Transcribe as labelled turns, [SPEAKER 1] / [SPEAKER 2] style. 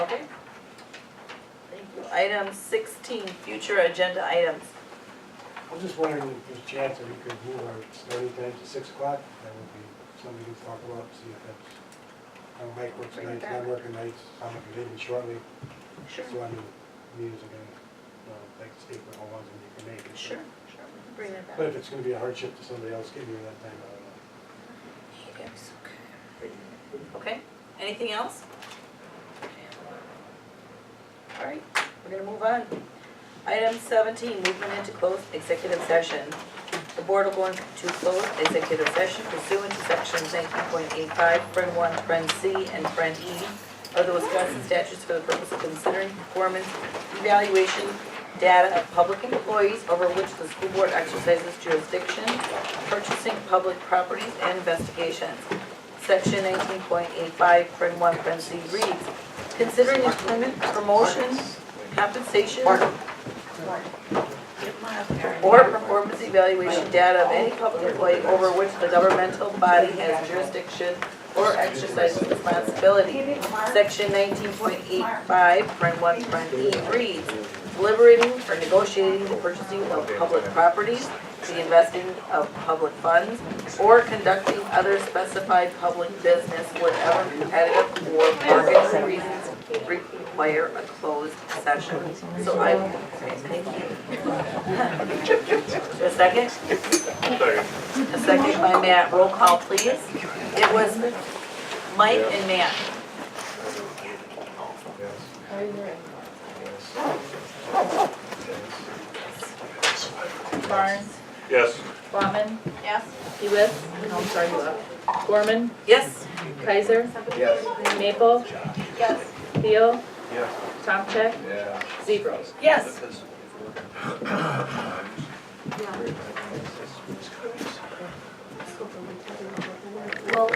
[SPEAKER 1] Item sixteen, future agenda items.
[SPEAKER 2] I'm just wondering if there's a chance that we could move our starting time to six o'clock, that would be something to talk about, see if that's, how Mike works
[SPEAKER 1] Bring it
[SPEAKER 2] nights,
[SPEAKER 1] back.
[SPEAKER 2] I'm working nights, I'm gonna be leaving shortly,
[SPEAKER 1] Sure.
[SPEAKER 2] so I'm meetings again, well, like to speak with all of them, you can make it. but-
[SPEAKER 1] Sure, sure, we can bring that back.
[SPEAKER 2] But if it's gonna be a hardship to somebody else giving you that time, I don't know.
[SPEAKER 1] Okay, anything else? All right, we're gonna move on. Item seventeen, movement into closed executive session. The board will go into closed executive session pursuant to sections nineteen point eight five, friend one, friend C, and friend E of the Wisconsin statutes for the purpose of considering performance evaluation data of public employees over which the school board exercises jurisdiction, purchasing public properties, and investigations. Section nineteen point eight five, print one, print C reads, considering employment, promotion, compensation, or performance evaluation data of any public employee over which the governmental body has jurisdiction or exercises responsibility. Section nineteen point eight five, print one, print E reads, deliberating or negotiating the purchasing of public properties, the investing of public funds, or conducting other specified public business whenever competitive or market reasons require a closed session. So I, thank you. A second? A second by Matt, roll call please. It was Mike and Matt.
[SPEAKER 3] Barnes,
[SPEAKER 4] Yes.
[SPEAKER 3] Bauman,
[SPEAKER 1] Yes.
[SPEAKER 3] Hewitt, no, I'm sorry, you left. Gorman,
[SPEAKER 1] Yes.
[SPEAKER 3] Kaiser,
[SPEAKER 5] Yes.
[SPEAKER 3] Maple,
[SPEAKER 1] Yes.
[SPEAKER 3] Theo,
[SPEAKER 5] Yes.
[SPEAKER 3] Tomcheck,
[SPEAKER 5] Yeah.
[SPEAKER 3] Zebros.
[SPEAKER 1] Yes.